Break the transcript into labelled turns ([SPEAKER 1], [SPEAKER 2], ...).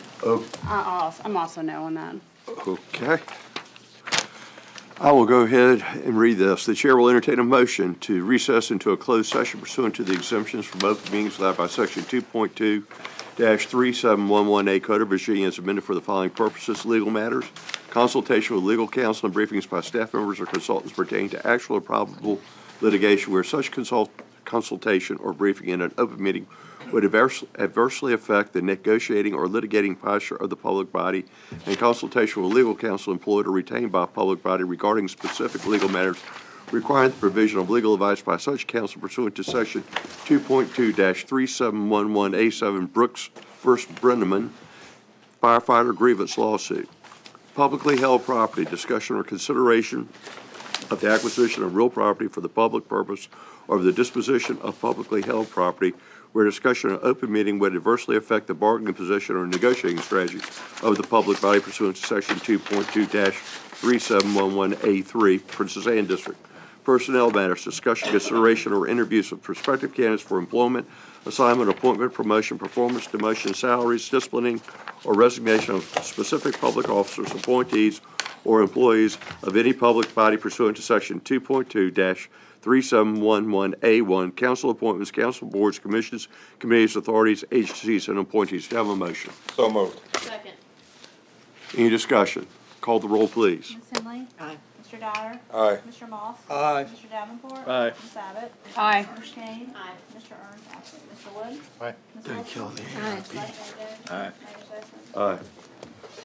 [SPEAKER 1] Oh,
[SPEAKER 2] I also, I'm also no on that.
[SPEAKER 1] Okay. I will go ahead and read this. The chair will entertain a motion to recess into a closed session pursuant to the exemptions from open meetings allowed by section two point two three seven one one A Code of Virginia as amended for the following purposes, legal matters, consultation with legal counsel and briefings by staff members or consultants pertaining to actual or probable litigation where such consult, consultation or briefing in an open meeting would adverse- adversely affect the negotiating or litigating posture of the public body and consultation with legal counsel employed or retained by a public body regarding specific legal matters requiring the provision of legal advice by such counsel pursuant to section 2.2-3711A7 Brooks v. Brenneman firefighter grievance lawsuit. Publicly held property, discussion or consideration of the acquisition of real property for the public purpose or of the disposition of publicly held property where discussion in an open meeting would adversely affect the bargaining position or negotiating strategy of the public body pursuant to section two point two three seven one one A three, Princess Anne District. Personnel matters, discussion, consideration, or interviews of prospective candidates for employment, assignment, appointment, promotion, performance, demotion, salaries, disciplining, or resignation of specific public officers, appointees, or employees of any public body pursuant to section two point two three seven one one A one, council appointments, council boards, commissions, committees, authorities, agencies, and appointees. Do I have a motion?
[SPEAKER 3] So moved.
[SPEAKER 4] Second.
[SPEAKER 1] Any discussion? Call the roll, please.
[SPEAKER 5] Ms. Henley? Aye. Mr. Dyer?
[SPEAKER 3] Aye.
[SPEAKER 5] Mr. Moss?
[SPEAKER 6] Aye.
[SPEAKER 5] Mr. Davenport?
[SPEAKER 6] Aye.
[SPEAKER 5] Ms. Abbott?
[SPEAKER 2] Aye.
[SPEAKER 5] Mr. Kane?
[SPEAKER 4] Aye.
[SPEAKER 5] Mr. Ernst, absent. Mr. Wood?
[SPEAKER 6] Aye.
[SPEAKER 5] Don't kill me. Aye. Mayor Sessions?
[SPEAKER 1] Aye.